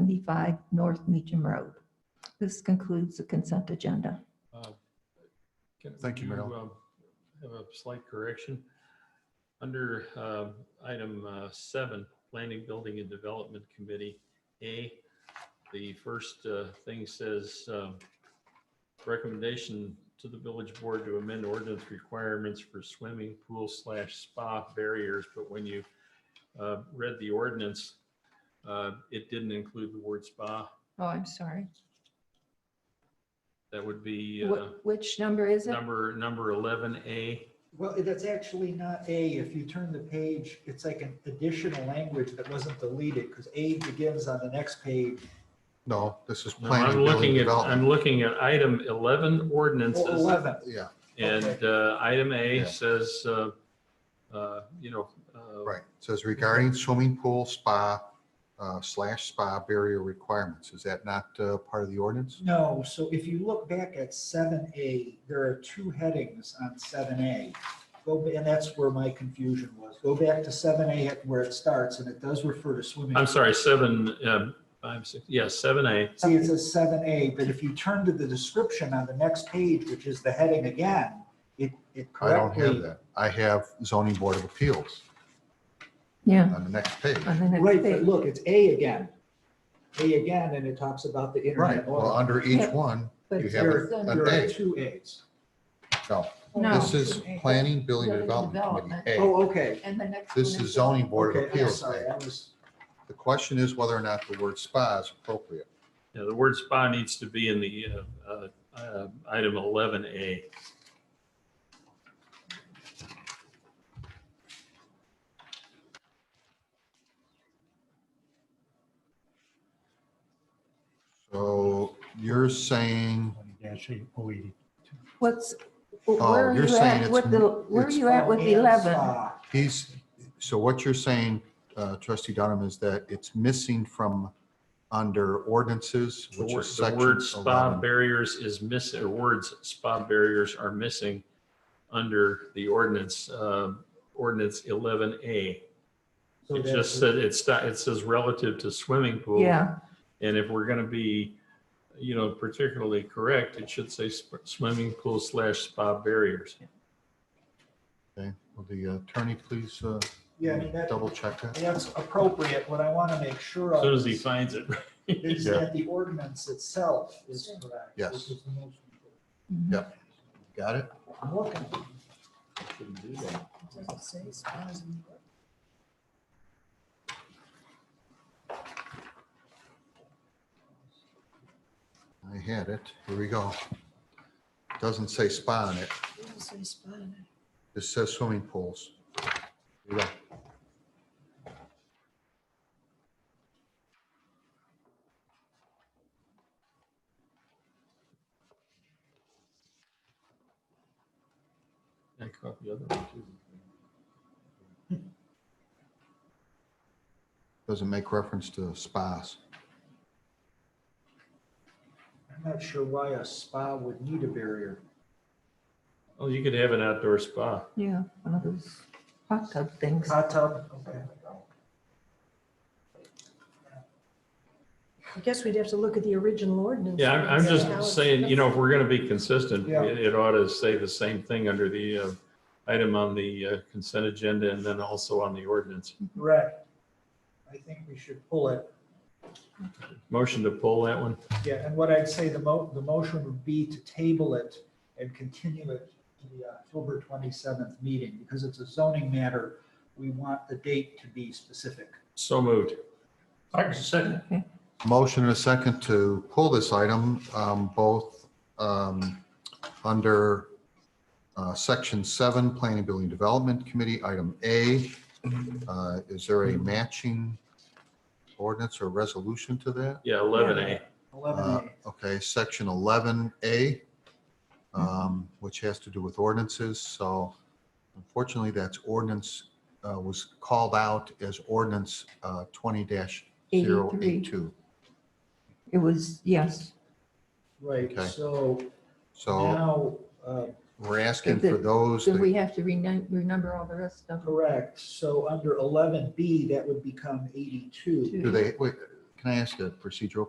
75 North Meacham Road. This concludes the consent agenda. Uh, can- Thank you, do, Merrill. um, Have a slight correction. Under um, item uh, seven, Planning, Building and Development Committee, A, the first uh, thing says um, recommendation to the village board to amend ordinance requirements for swimming pool slash spa barriers. But when you uh, read the ordinance, uh, it didn't include the word spa. Oh, I'm sorry. That would be Wh- uh, Which number is it? number, number 11A. Well, that's actually not A. If you turn the page, it's like an additional language that wasn't deleted because A begins on the next page. No, this is No, planning, I'm building, looking at, development. I'm looking at item 11 Oh, ordinances, 11. Yeah, and uh, item Yeah. A says, uh, uh, you know, uh, right. It Says regarding swimming pool, spa uh, slash spa barrier requirements. Is that not uh, part of the ordinance? No, so if you look back at seven A, there are two headings on seven A. Go, ba- and that's where my confusion was. Go back to seven A where it starts and it does refer to swimming. I'm sorry, seven, um, five, six, yes, 7A. See, it says seven A, but if you turn to the description on the next page, which is the heading again, it, it I don't correctly. have that. I have zoning board of appeals Yeah. on the next page. on the next Right, but page. look, it's A again. A again, and it talks about the Right. internet. Well, law. under each one, But you it's have There done an there are A. two As. no, No. this is planning, building, and development committee. A. Oh, okay. And the next. This one is zoning board of Okay, I'm appeals. sorry, A. I was, The question is whether or not the word spa is appropriate. Yeah, the word spa needs to be in the uh, uh, uh, item 11A. So you're saying, What's, Oh, where are you're you saying at it's with the, where are it's- you at with Oh, and 11? spa. he's, so what you're saying, uh, trustee Dunham, is that it's missing from under ordinances, The which word- is the section word spa 11. barriers is missing, or words spa barriers are missing under the ordinance, uh, ordinance 11A. So It that's- just said, it's, it says relative to swimming pool. Yeah, And if we're gonna be, you know, particularly correct, it should say sp- swimming pool slash spa barriers. Okay, will the attorney please uh, Yeah, I mean, that, double check that? that's appropriate. What I want to make sure As soon of as he is finds it. is Yeah. that the ordinance itself is correct. Yes. which is the most important. Mhm. Got it? I'm looking. I had it. Here we go. Doesn't say spa on it. It says swimming pools. Here we go. I caught the other one too. Doesn't make reference to spas. I'm not sure why a spa would need a barrier. Oh, you could have an outdoor spa. yeah, one of those hot tub things. Hot tub, okay. I guess we'd have to look at the original ordinance. Yeah, I'm, I'm and see how just it's- saying, you know, if we're gonna be consistent, Yeah. it, it ought to say the same thing under the, uh, item on the uh, consent agenda and then also on the ordinance. Right. I think we should pull it. Motion to pull that one. Yeah, and what I'd say, the mo, the motion would be to table it and continue it to the October 27th meeting, because it's a zoning matter. We want the date to be specific. So moved. Second. Okay. Motion and a second to pull this item, um, both um, under uh, Section 7, Planning, Building, Development Committee, Item A. Uh, Is there a matching ordinance or resolution to that? Yeah, eleven A. 11A. Uh, Okay, Section 11A, um, which has to do with ordinances. So unfortunately, that's ordinance, uh, was called out as ordinance uh, 20-082. It was, yes, Right, okay. so So now, uh, We're asking for Then- those, so we that- have to renum- renumber all the rest of them. correct, so under 11B, that would become 82. do they, wait, Can I ask a procedural